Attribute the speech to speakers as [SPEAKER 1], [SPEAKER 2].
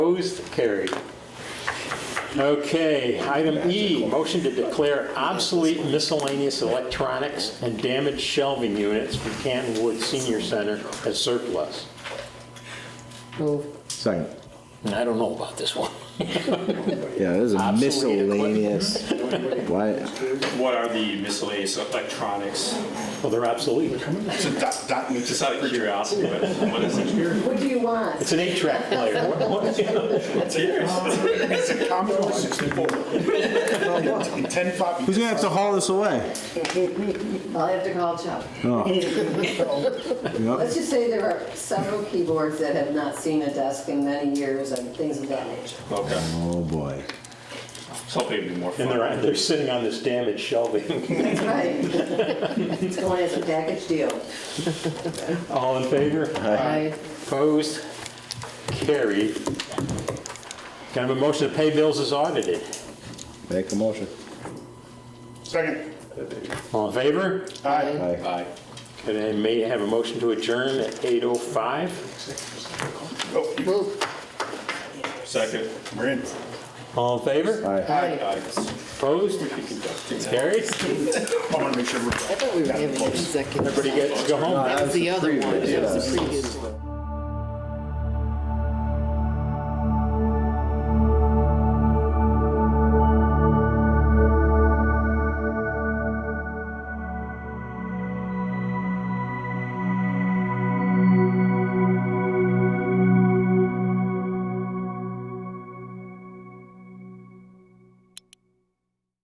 [SPEAKER 1] Opposed, carried. Okay, item E, motion to declare obsolete miscellaneous electronics and damaged shelving units from Canton Woods Senior Center as surplus.
[SPEAKER 2] Move.
[SPEAKER 3] Second.
[SPEAKER 1] And I don't know about this one.
[SPEAKER 3] Yeah, this is a
[SPEAKER 1] Obsolete equipment.
[SPEAKER 3] miscellaneous. Why,
[SPEAKER 4] What are the miscellaneous electronics?
[SPEAKER 1] Well, they're obsolete.
[SPEAKER 4] It's a doc- document, just out of curiosity, but what is it here?
[SPEAKER 2] What do you want?
[SPEAKER 1] It's an eight-track player. What- what-
[SPEAKER 4] It's yours.
[SPEAKER 5] It's a Commodore 64. 10 floppy.
[SPEAKER 3] who's gonna have to haul this away?
[SPEAKER 2] I'll have to call Chuck.
[SPEAKER 3] Yep.
[SPEAKER 2] Let's just say there are several keyboards that have not seen a desk in many years and things of that nature.
[SPEAKER 4] Okay,
[SPEAKER 3] Oh, boy.
[SPEAKER 4] so hopefully it'd be more
[SPEAKER 1] And
[SPEAKER 4] fun.
[SPEAKER 1] they're, they're sitting on this damaged shelving.
[SPEAKER 2] That's right. It's going as a package deal.
[SPEAKER 1] All in favor?
[SPEAKER 2] Aye.
[SPEAKER 1] Opposed, carried. Kind of a motion to pay bills as audited?
[SPEAKER 3] Make a motion.
[SPEAKER 5] Second.
[SPEAKER 1] All in favor?
[SPEAKER 5] Aye.
[SPEAKER 3] Aye.
[SPEAKER 4] Aye.
[SPEAKER 1] Could I may have a motion to adjourn at 8:05?
[SPEAKER 4] Second.
[SPEAKER 5] We're in.
[SPEAKER 1] All in favor?
[SPEAKER 3] Aye.
[SPEAKER 4] Aye.
[SPEAKER 1] Opposed? Carried?
[SPEAKER 5] I want to make sure we're.
[SPEAKER 6] I thought we were having an executive.
[SPEAKER 1] Everybody
[SPEAKER 6] session.
[SPEAKER 1] gets to go home?
[SPEAKER 6] That was the other one, that was the previous one.